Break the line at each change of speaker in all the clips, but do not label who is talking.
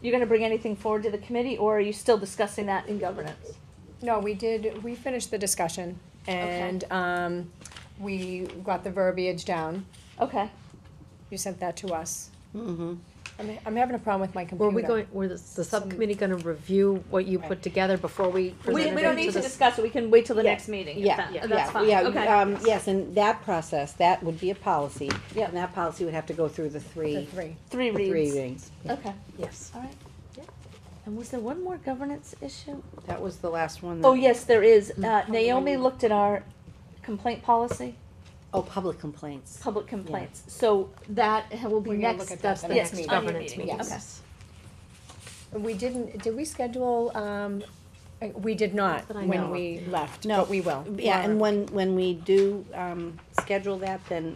you're gonna bring anything forward to the committee, or are you still discussing that in governance?
No, we did, we finished the discussion and, um, we got the verbiage down.
Okay,
You sent that to us.
Mm-hmm.
I'm, I'm having a problem with my
Were
computer.
we going, were the, the subcommittee gonna review what you put together before we
we,
presented
we don't
it
need to
to the? s-
discuss it, we can wait till the next meeting, if
Yeah,
that,
yeah,
that's fine,
yeah,
okay.
um, yes, and that process, that would be a policy.
Yeah.
And that policy would have to go through the
The
three,
three.
Three
the three
reads,
rings.
okay,
Yes,
all right. And was there one more governance issue?
that was the last one.
Oh,
that-
yes, there is, uh, Naomi looked at our complaint policy.
Oh, public complaints.
public complaints, so that ha- will be
We're gonna
next,
look at that
that's
the
the
next
next
meeting.
governance
Governance
meeting,
meeting.
okay.
We didn't, did we schedule, um, uh, we did not
But I
when
know.
we left,
No.
but we will.
Yeah, and
Laura.
when, when we do, um, schedule that, then,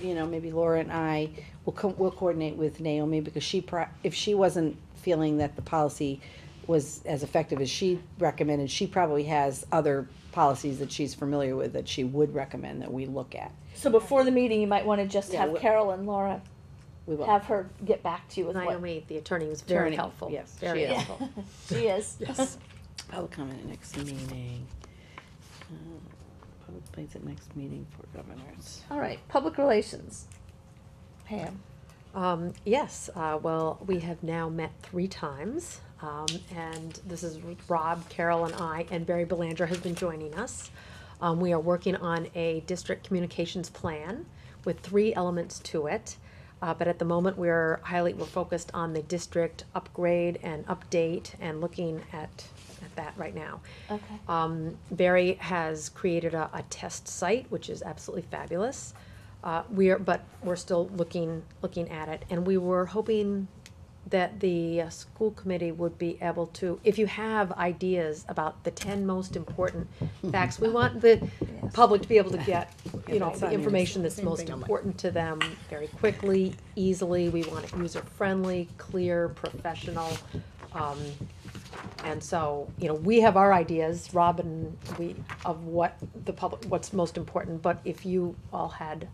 you know, maybe Laura and I will co- we'll coordinate with Naomi because she pro- if she wasn't feeling that the policy was as effective as she recommended, she probably has other policies that she's familiar with that she would recommend that we look at.
So before the meeting, you might wanna just
Yeah,
have
we-
Carol and Laura,
We will.
have her get back to you with what
Naomi, the attorney, was very
Attorney,
helpful.
yes, she
Very
is.
helpful.
she is.
Yes.
I'll come at next meeting. Uh, Public place at next meeting for governors.
All right, public relations. Pam,
Um, yes, uh, well, we have now met three times, um, and this is Rob, Carol, and I, and Barry Belanger has been joining us. Um, we are working on a district communications plan with three elements to it. Uh, but at the moment, we're highly, we're focused on the district upgrade and update and looking at, at that right now.
okay,
Um, Barry has created a, a test site, which is absolutely fabulous. Uh, we are, but we're still looking, looking at it, and we were hoping that the uh, school committee would be able to, if you have ideas about the ten most important facts, we want the public to be able to get, you know,
that's
the
on there.
information that's
Same
most
thing on mine.
important to them very quickly, easily, we want it user-friendly, clear, professional. Um, and so, you know, we have our ideas, Rob and we, of what the public, what's most important, but if you all had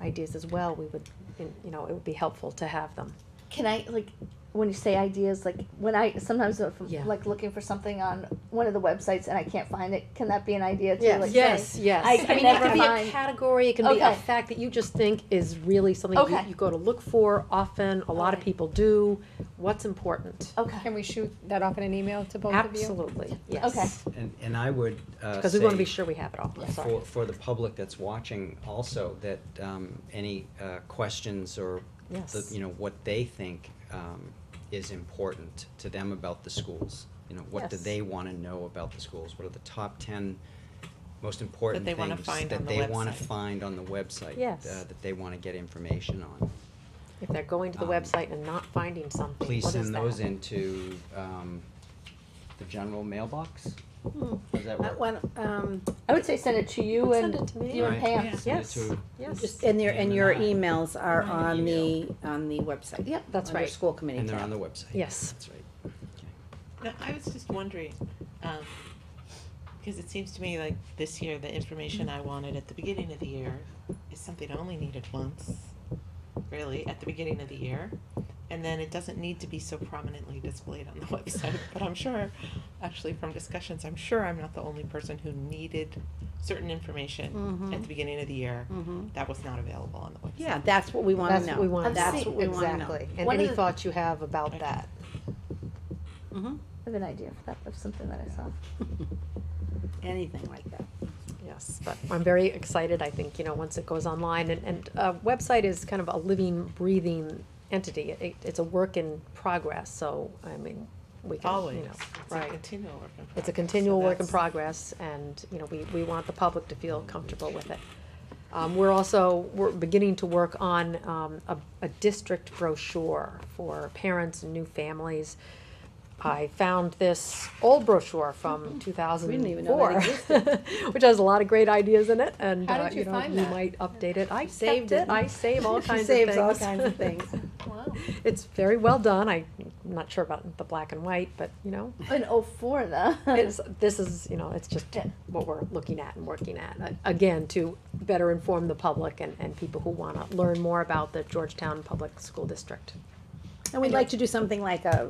ideas as well, we would, you know, it would be helpful to have them.
can I, like, when you say ideas, like, when I, sometimes if I'm,
Yeah.
like, looking for something on one of the websites and I can't find it, can that be an idea too? Like, say,
yes.
I can
mean, it
never
could be a
find-
category, it can be a
Okay.
fact that you just think is really something you,
Okay.
you go to look for often, a lot of
Alright.
people do, what's important?
Okay,
Can we shoot that off in an email to both of you?
Absolutely,
Okay.
yes.
And, and I would, uh,
Because we wanna be
say
sure we have it all, I'm sorry.
For, for the public that's watching also, that, um, any, uh, questions or the,
Yes.
you know, what they think, um, is important to them about the schools. You know, what do
Yes.
they wanna know about the schools? What are the top ten most important
they
things?
wanna find on the
That they wanna
website.
find on the website.
Yes.
uh, That they wanna get information on.
If they're going to the
Um,
website and not finding something,
Please
what is
send those
that?
into, um, the general mailbox?
Hmm.
Does that
Uh,
work?
when, um,
I would say send it to you and,
Send it to me.
you and
Right.
Pam.
Send it
Yes.
to-
Yes.
just, and your, and your emails are
My
on the,
email.
on the website.
Yep, that's
Under
right.
school committee
And they're
tab.
on the website.
Yes.
That's right.
No, I was just wondering, um, because it seems to me like this year, the information I wanted at the beginning of the year is something I only needed once, really, at the beginning of the year. And then it doesn't need to be so prominently displayed on the website, but I'm sure, actually from discussions, I'm sure I'm not the only person who needed certain
Mm-hmm.
information at the beginning of the year
Mm.
Mm-hmm.
that was not available on the website.
Yeah, that's what we wanna know.
That's what we wanna
I've
That's
seen-
what we wanna know.
Exactly, and
One of
any
the-
thoughts you have about that.
I
Mhm.
have an idea of that, of something that I saw.
Anything like that.
Yes, but I'm very excited, I think, you know, once it goes online, and, and a website is kind of a living, breathing entity. It, it's a work in progress, so, I mean, we can, you
Always,
know,
it's a
right.
continual work in progress.
It's a continual
so
work in
that's-
progress, and, you know, we, we want the public to feel comfortable with it. Um, we're also, we're beginning to work on, um, a, a district brochure for parents and new families. I found this old brochure from two thousand
We didn't
and
even know
four,
that
which has a lot of great ideas in it, and,
How
uh,
did you
you know,
find
you
that?
might update it. I
saved
saved it,
it.
I save all
She
kinds of things.
saves all kinds of things.
Wow.
It's very well done, I, I'm not sure about the black and white, but, you know,
In oh four though.
it's, this is, you know, it's just what we're looking at and working at. Uh, Again, to better inform the public and, and people who wanna learn more about the Georgetown Public School District.
And we'd like to do something like a